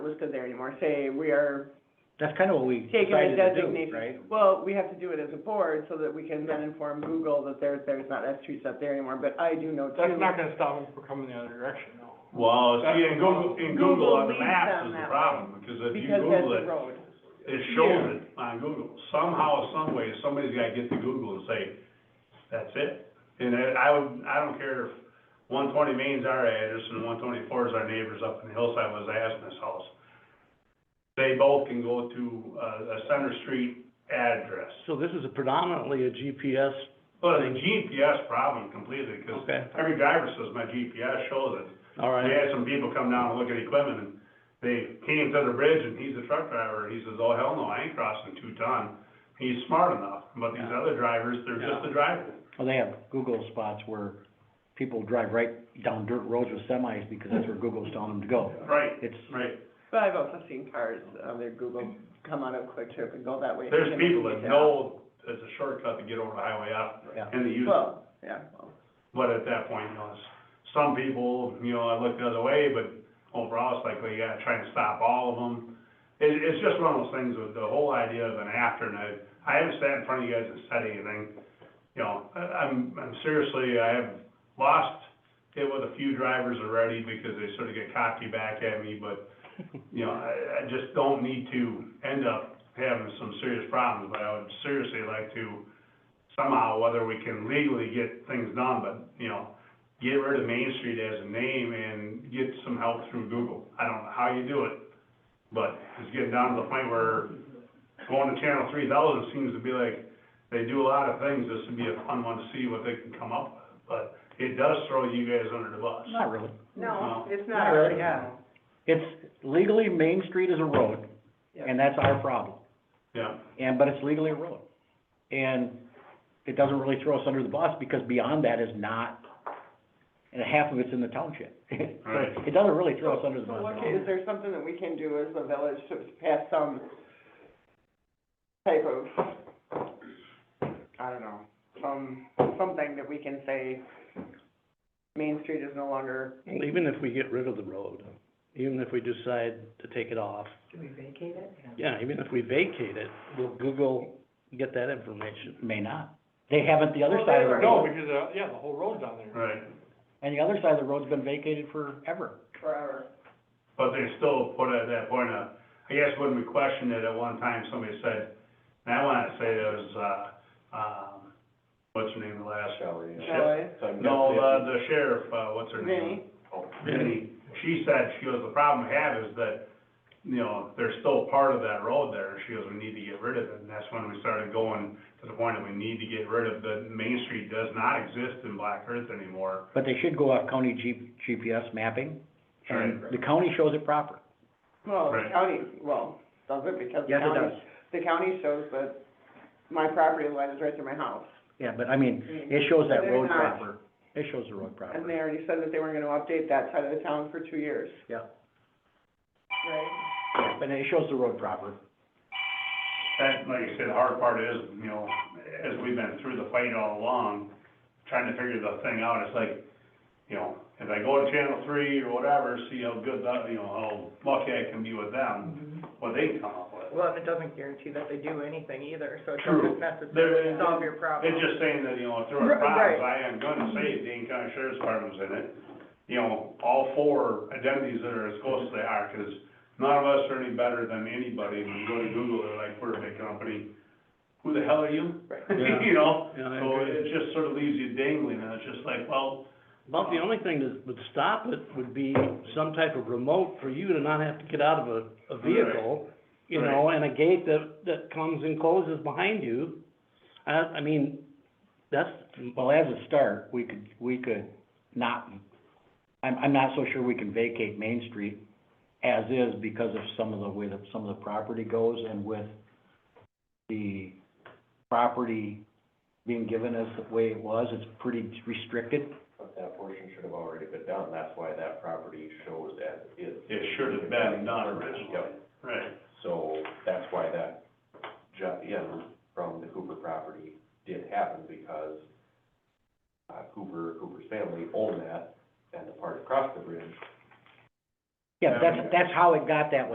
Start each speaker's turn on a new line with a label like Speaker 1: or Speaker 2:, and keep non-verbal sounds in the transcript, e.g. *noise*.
Speaker 1: listed there anymore, say, we are,
Speaker 2: That's kind of what we
Speaker 1: Taking a
Speaker 2: decided to do,
Speaker 1: designation.
Speaker 2: right?
Speaker 1: well, we have to do it as a board so that we can then inform Google that there's, there's not S three stuff there anymore, but I do know too.
Speaker 3: That's not gonna stop them from coming the other direction, no.
Speaker 4: Well, see, in Google, in Google on
Speaker 1: Google leads
Speaker 4: the maps
Speaker 1: them
Speaker 4: is the
Speaker 1: that
Speaker 4: problem, because if you
Speaker 1: Because that's
Speaker 4: Google
Speaker 1: the
Speaker 4: it,
Speaker 1: road.
Speaker 4: it shows it on Google. Somehow, some way, somebody's gotta get to Google and say, that's it. And I, I would, I don't care if one twenty Main's our address and one twenty-four is our neighbors up in the hillside was Asmus House. They both can go to, uh, a center street address.
Speaker 2: So this is predominantly a GPS,
Speaker 4: Well, it's a GPS problem completely, because
Speaker 2: okay,
Speaker 4: every driver says my GPS shows it.
Speaker 2: all
Speaker 4: We
Speaker 2: right.
Speaker 4: had some people come down and look at equipment, and they came to the bridge, and he's a truck driver, he says, oh, hell no, I ain't crossing two ton. He's smart enough, but these
Speaker 2: Yeah.
Speaker 4: other drivers, they're just a driver.
Speaker 2: Well, they have Google spots where people drive right down dirt roads with semis because that's where Google's telling them to go.
Speaker 4: Right,
Speaker 2: It's,
Speaker 4: right.
Speaker 1: But I've also seen cars on their Google come out of Quick Trip and go that way.
Speaker 4: There's
Speaker 1: and then
Speaker 4: people that
Speaker 1: get out.
Speaker 4: know it's a shortcut to get over the highway up,
Speaker 2: Yeah.
Speaker 4: and they use it.
Speaker 1: Well, yeah, well,
Speaker 4: But at that point, you know, it's, some people, you know, I look the other way, but overall, it's like, well, you gotta try and stop all of them. It, it's just one of those things with the whole idea of an after, and I, I haven't sat in front of you guys and said anything. You know, I, I'm, I'm seriously, I have lost it with a few drivers already because they sort of get cocky back at me, but, you know, I, I just don't need to end up having some serious problems, but I would seriously like to somehow, whether we can legally get things done, but, you know, get rid of Main Street as a name and get some help through Google. I don't know how you do it, but it's getting down to the point where going to Channel three thousand seems to be like, they do a lot of things, this would be a fun one to see what they can come up with, but it does throw you guys under the bus.
Speaker 2: not really.
Speaker 4: No,
Speaker 1: it's
Speaker 2: not Not really. It's legally, Main Street is a road, and that's our problem.
Speaker 4: Yeah,
Speaker 2: And, but it's legally a road. And it doesn't really throw us under the bus because beyond that is not, and half of it's in the township. *laughs* So
Speaker 4: Right.
Speaker 2: It doesn't really throw us under the
Speaker 1: So
Speaker 2: bus
Speaker 1: what,
Speaker 2: at
Speaker 1: is
Speaker 2: all.
Speaker 1: there something that we can do as a village to pass some type of, I don't know, some, something that we can say, Main Street is no longer,
Speaker 5: Well, even if we get rid of the road, even if we decide to take it off. Do we vacate it? Yeah, even if we vacate it, will Google get that information?
Speaker 2: May not. They haven't the other
Speaker 1: Well,
Speaker 2: side
Speaker 1: they
Speaker 2: of the
Speaker 1: were-
Speaker 3: No,
Speaker 2: road,
Speaker 3: because, uh, yeah, the whole road's down there.
Speaker 4: right,
Speaker 2: and the other side of the road's been vacated forever.
Speaker 1: forever.
Speaker 4: but they're still put at that point of, I guess when we questioned it at one time, somebody said, and I wanna say it was, uh, um, what's her name, the last?
Speaker 6: Shelley.
Speaker 4: Shit.
Speaker 1: Joy,
Speaker 4: No, the, the sheriff, uh, what's her
Speaker 1: Vinnie,
Speaker 4: name? Vinnie. She said, she goes, the problem we have is that, you know, there's still part of that road there, she goes, we need to get rid of it. And that's when we started going to the point that we need to get rid of, the Main Street does not exist in Black Earth anymore.
Speaker 2: But they should go off county G- GPS mapping, and
Speaker 4: Right.
Speaker 2: the county shows it proper.
Speaker 1: well, the
Speaker 4: Right.
Speaker 1: county, well, does it because the
Speaker 2: Yes, it
Speaker 1: county,
Speaker 2: does.
Speaker 1: the county shows that my property line is right through my house.
Speaker 2: Yeah, but I mean, it shows that
Speaker 1: They're
Speaker 2: road
Speaker 1: not.
Speaker 2: proper. It shows the road proper.
Speaker 1: And they already said that they weren't gonna update that side of the town for two years.
Speaker 2: Yeah.
Speaker 1: Right?
Speaker 2: Yeah, But it shows the road proper.
Speaker 4: That, like you said, the hard part is, you know, as we've been through the fight all along, trying to figure the thing out, it's like, you know, if I go to Channel Three or whatever, see how good, that- you know, how lucky I can be with them, what they come up with.
Speaker 7: Well, and it doesn't guarantee that they do anything either, so it
Speaker 4: True.
Speaker 7: doesn't
Speaker 4: There-
Speaker 7: necessarily solve your problem.
Speaker 4: It's just saying that, you know, if there are
Speaker 7: Right,
Speaker 4: problems,
Speaker 7: right.
Speaker 4: I am gonna say Dane County Sheriff's Department's in it. You know, all four identities that are as close as they are, 'cause none of us are any better than anybody. When you go to Google, they're like, we're a big company. Who the hell are you?
Speaker 7: Right.
Speaker 4: *laughs* You know?
Speaker 5: Yeah, I
Speaker 4: So
Speaker 5: agree.
Speaker 4: it just sort of leaves you dangling, and it's just like, well, uh,
Speaker 5: About the only thing that would stop it would be some type of remote for you to not have to get out of a, a vehicle, you know, and a gate that, that comes and closes behind you. I, I mean, that's,
Speaker 2: Well, as a start, we could, we could not, I'm, I'm not so sure we can vacate Main Street as is because of some of the way that some of the property goes and with the property being given as the way it was, it's pretty restricted.
Speaker 6: But that portion should have already been done, that's why that property shows as is.
Speaker 4: it should have been done originally.
Speaker 6: Yep,
Speaker 4: Right,
Speaker 6: so that's why that jut in from the Hoover property did happen, because uh, Hoover, Hoover's family owned that, and the part across the bridge
Speaker 2: Yeah, that's, that's how it got that way.